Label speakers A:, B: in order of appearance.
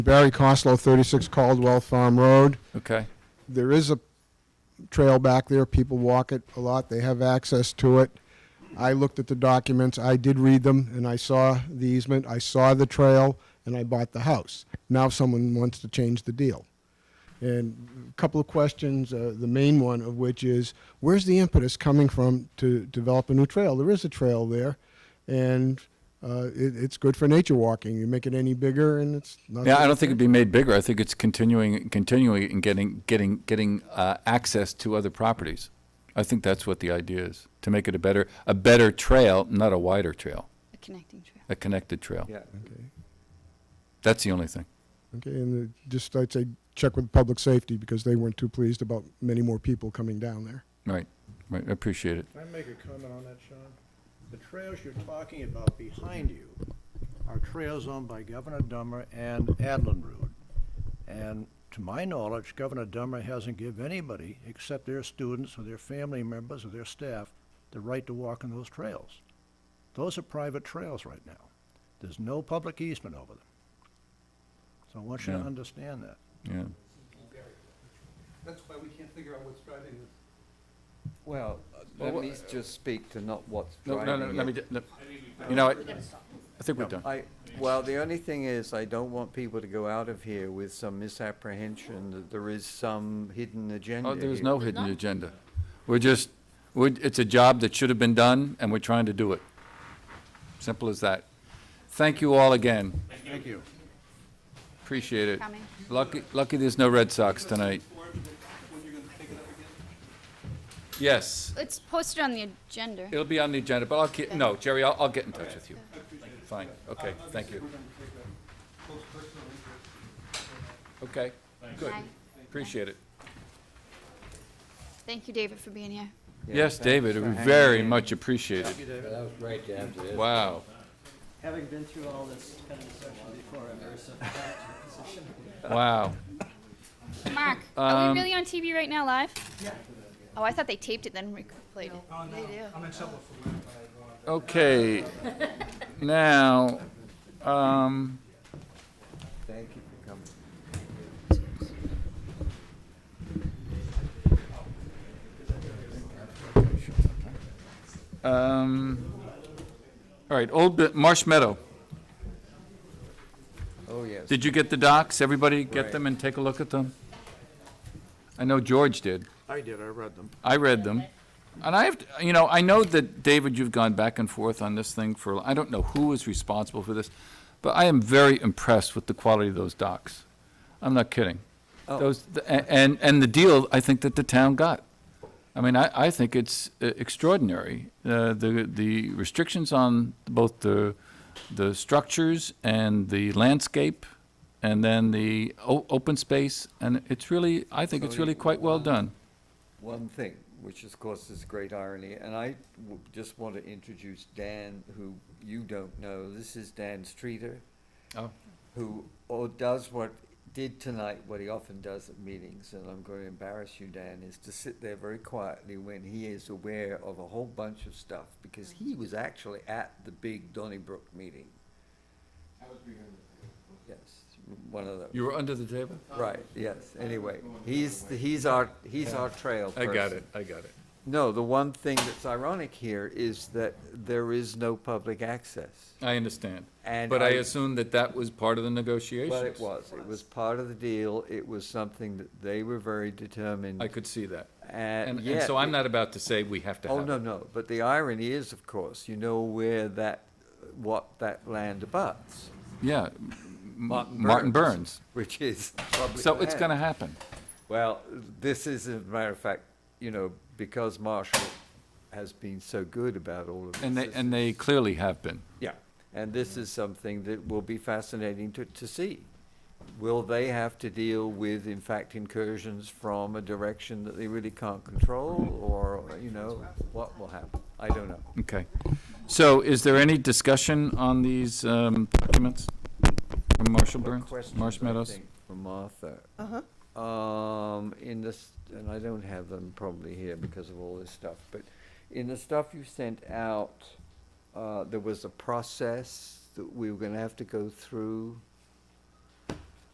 A: Barry Costlow, 36 Caldwell Farm Road.
B: Okay.
A: There is a trail back there. People walk it a lot. They have access to it. I looked at the documents. I did read them, and I saw the easement. I saw the trail, and I bought the house. Now someone wants to change the deal. And a couple of questions, uh, the main one of which is, where's the impetus coming from to develop a new trail? There is a trail there, and uh, it, it's good for nature walking. You make it any bigger, and it's not.
B: Yeah, I don't think it'd be made bigger. I think it's continuing, continuing and getting, getting, getting uh, access to other properties. I think that's what the idea is, to make it a better, a better trail, not a wider trail,
C: A connecting trail.
B: a connected trail.
D: Yeah.
A: Okay.
B: That's the only thing.
A: Okay, and uh, just, I'd say, check with public safety, because they weren't too pleased about many more people coming down there.
B: Right, right, I appreciate it.
E: Can I make a comment on that, Sean? The trails you're talking about behind you are trails owned by Governor Dummer and Adlin Road. And to my knowledge, Governor Dummer hasn't given anybody, except their students or their family members or their staff, the right to walk on those trails. Those are private trails right now. There's no public easement over them. So I want you to
B: Yeah.
E: understand that.
B: Yeah.
F: That's why we can't figure out what's driving this.
D: Well, let me just speak to not what's
B: No,
D: driving
B: no, no, let me, ju-
D: it.
B: no. you know, I I think we're done.
D: I, well, the only thing is, I don't want people to go out of here with some misapprehension that there is some hidden agenda
B: Oh, there's
D: here.
B: no hidden agenda. We're just, we're, it's a job that should have been done, and we're trying to do it. Simple as that. Thank you all again.
E: Thank you.
B: Appreciate it.
C: Coming.
B: Lucky, lucky there's no Red Sox tonight.
F: When you're gonna pick it up again?
B: Yes,
C: It's posted on the agenda.
B: it'll be on the agenda, but I'll keep, no, Jerry, I'll, I'll get in touch with you. Fine, okay,
F: Uh,
B: thank you. Okay, good,
C: Bye.
B: appreciate it.
C: Thank you, David, for being here.
D: Yeah,
B: Yes,
D: thanks
B: David,
D: for
B: we
D: hanging
B: very
D: in.
B: much appreciate it.
G: That was great to have this.
B: Wow.
G: Having been through all this kind of session before, I'm very sympathetic to your position.
B: Wow.
C: Mark, are
B: Um,
C: we really on TV right now, live? Yeah. Oh, I thought they taped it then replayed it.
B: Okay, now, um,
D: Thank you for coming.
B: um, all right, Old Bu- Marsh Meadow.
D: Oh, yes.
B: Did you get the docs? Everybody
D: Right.
B: get them and take a look at them? I know George did.
E: I did, I read them.
B: I read them. And I have, to- you know, I know that, David, you've gone back and forth on this thing for, I don't know who is responsible for this, but I am very impressed with the quality of those docs. I'm not kidding.
D: Oh.
B: Those, the- a- and, and the deal, I think that the town got. I mean, I, I think it's uh, extraordinary. Uh, the, the restrictions on both the, the structures and the landscape, and then the o- open space, and it's really, I think it's really quite well done.
D: one thing, which of course is a great irony, and I w- just want to introduce Dan, who you don't know. This is Dan Streeter,
B: Oh.
D: who or does what did tonight what he often does at meetings, and I'm going to embarrass you, Dan, is to sit there very quietly when he is aware of a whole bunch of stuff because he was actually at the big Donnybrook meeting. Yes, one of those.
B: You were under the table?
D: right. Yes. Anyway, he's he's our he's our trail.
B: I got
D: person.
B: it, I got it.
D: No, the one thing that's ironic here is that there is no public access.
B: I understand.
D: And
B: But I
D: I-
B: assume that that was part of the negotiations.
D: But it was, it was part of the deal, it was something that they were very determined.
B: I could see that.
D: And
B: And, and
D: yet-
B: so I'm not about to say we have to have.
D: Uh, Oh, no,
B: it.
D: no, but the irony is, of course, you know where that, what that land abuts.
B: Yeah, Martin Burns.
D: Which is public
B: So it's
D: land.
B: gonna happen.
D: Well, this is, as a matter of fact, you know, because Marshall has been so good about all of this.
B: And they,
D: this
B: and they clearly have been.
D: Yeah, and this is something that will be fascinating to, to see. Will they have to deal with, in fact, incursions from a direction that they really can't control, or, you know, what will happen? I don't know.
B: Okay. So is there any discussion on these um, documents from Marshall Burns,
D: Questions,
B: Marsh
D: I
B: Meadows?
D: think, For Martha. Uh-huh. Um, in this, and I don't have them probably here because of all this stuff, but in the stuff you sent out, uh, there was a process that we were gonna have to go through.